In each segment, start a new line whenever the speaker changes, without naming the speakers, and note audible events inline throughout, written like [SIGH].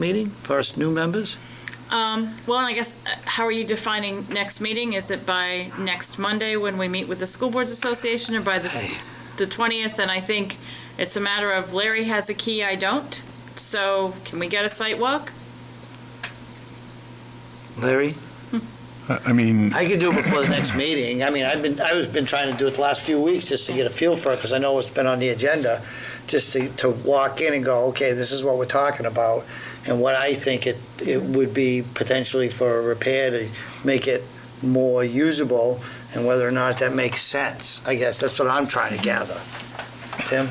meeting for us new members?
Um, well, and I guess, uh, how are you defining next meeting? Is it by next Monday when we meet with the School Boards Association or by the,
Hey.
the 20th? And I think it's a matter of Larry has a key, I don't. So can we get a site walk?
Larry?
I I mean,
I could do it before the next meeting. I mean, I've been, I was been trying to do it the last few weeks just to get a feel for it, because I know it's been on the agenda, just to, to walk in and go, okay, this is what we're talking about, and what I think it, it would be potentially for a repair to make it more usable, and whether or not that makes sense, I guess, that's what I'm trying to gather. Tim?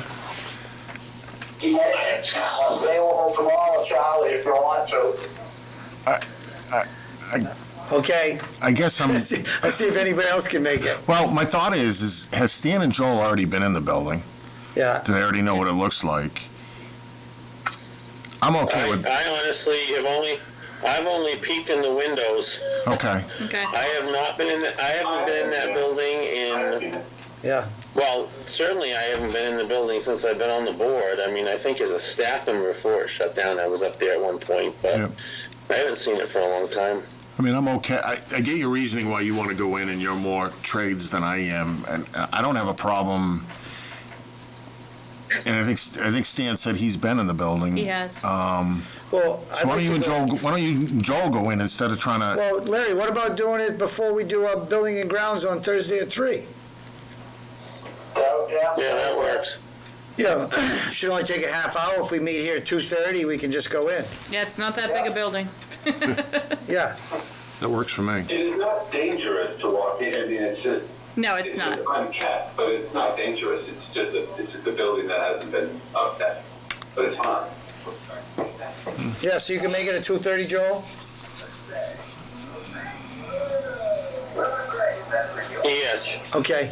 I'm available tomorrow, Charlie, if you want to.
[LAUGHS] Okay,
I guess I'm,
let's see, let's see if anybody else can make it,
well, my thought is, is has Stan and Joel already been in the building?
yeah.
Do they already know what it looks like? I'm okay
I,
with,
I honestly have only, I've only peeked in the windows.
okay,
Okay.
Mm.
I have not been in, the, I haven't been in that building in,
Yeah,
well, certainly I haven't been in the building since I've been on the board. I mean, I think as a staff member before it shut down, I was up there at one point, but
Yeah.
I haven't seen it for a long time.
I mean, I'm okay, I, I get your reasoning why you want to go in and you're more trades than I am, and I don't have a problem. And I think, I think Stan said he's been in the building.
He has.
Uh,
Um,
well. I'd
so why
like
don't
to
you and
go-
Joel, go- why don't you and Joel go in instead of trying to,
Well, Larry, what about doing it before we do our building and grounds on Thursday at three?
So, yeah.
Yeah, that works.
Yeah. [CLEARS THROAT] Should only take a half hour. If we meet here at two thirty, we can just go in.
Yeah, it's not that big a building.
Yeah,
that works for me.
It is not dangerous to walk in. I mean, it's just.
No, it's not.
just unkept, but it's not dangerous. It's just a, it's just a building that hasn't been upset, but it's fine.
yeah, so you can make it at two thirty, Joel?
Yes,
Okay,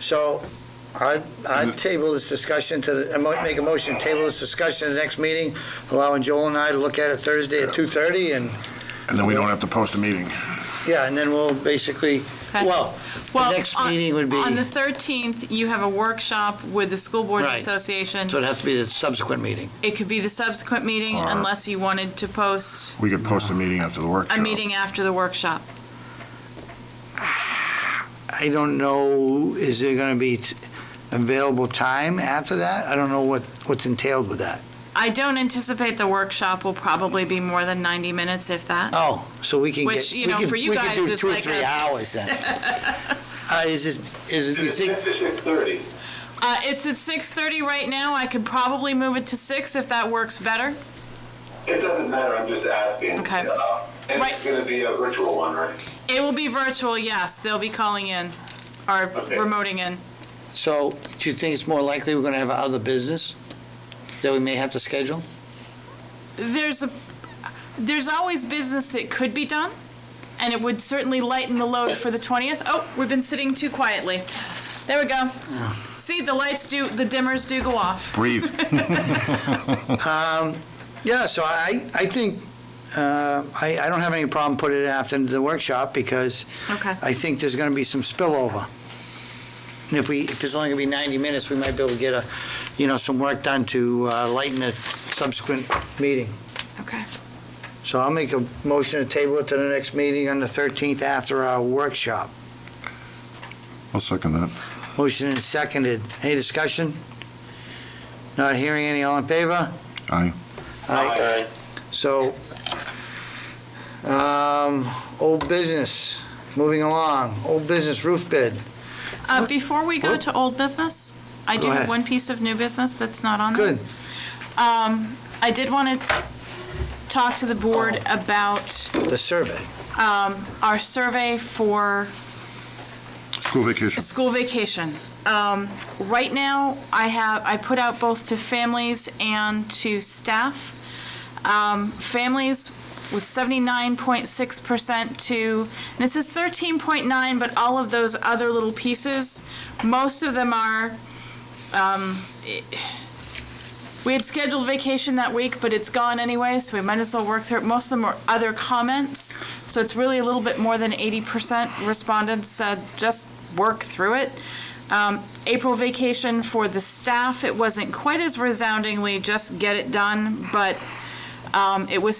so I, I table this discussion to, the- I might make a motion, to table this discussion to the next meeting, allowing Joel and I to look at it Thursday at two thirty and,
And then we don't have to post a meeting.
yeah, and then we'll basically,
Okay.
well,
Well,
next
on-
meeting would be-
On the 13th, you have a workshop with the School Boards
Right.
Association.
so it'd have to be the subsequent meeting.
It could be the subsequent meeting
Or-
unless you wanted to post
We could post a meeting after the workshop.
a meeting after the workshop.
I don't know, is there gonna be t- available time after that? I don't know what, what's entailed with that.
I don't anticipate the workshop will probably be more than 90 minutes, if that.
Oh, so we can get.
Which, you
we
know,
can-
for you
we can
guys
do
is
two or
like
three
a-
hours
[LAUGHS]
then. Uh, is this, is it, you
It's
think,
six to six thirty.
Uh, it's at 6:30 right now. I could probably move it to 6 if that works better.
It doesn't matter. I'm just asking.
Okay.
Uh, and
Right.
it's going to be a virtual one, right?
It will be virtual, yes. They'll be calling in or
Okay.
remoting in.
so do you think it's more likely we're gonna have other business that we may have to schedule?
There's a, there's always business that could be done, and it would certainly lighten the load for the 20th. Oh, we've been sitting too quietly. There we go. See, the lights do, the dimmers do go off. [LAUGHS]
Breathe.
Yeah, so I, I think, uh, I, I don't have any problem putting it after the workshop because
Okay.
I think there's gonna be some spillover. And if we, if it's only gonna be 90 minutes, we might be able to get a, you know, some work done to uh, lighten a subsequent meeting.
Okay.
So I'll make a motion to table it to the next meeting on the 13th after our workshop.
I'll second that.
Motion and seconded. Any discussion? Not hearing any, all in favor?
Aye.
all
Aye.
right.
So, um, old business, moving along, old business roof bid.
Uh, Before we go to old business, I
Go
do
ahead.
have one piece of new business that's not on there.
Good.
Um, I did want to talk to the board about
The survey.
um, our survey for
School vacation.
school vacation. Um, Right now, I have, I put out both to families and to staff. Um, Families was 79.6% to, and it says 13.9, but all of those other little pieces, most of them are we had scheduled vacation that week, but it's gone anyway, so we might as well work through it. Most of them were other comments, so it's really a little bit more than 80% respondents said just work through it. Um, April vacation for the staff, it wasn't quite as resoundingly just get it done, but um, it was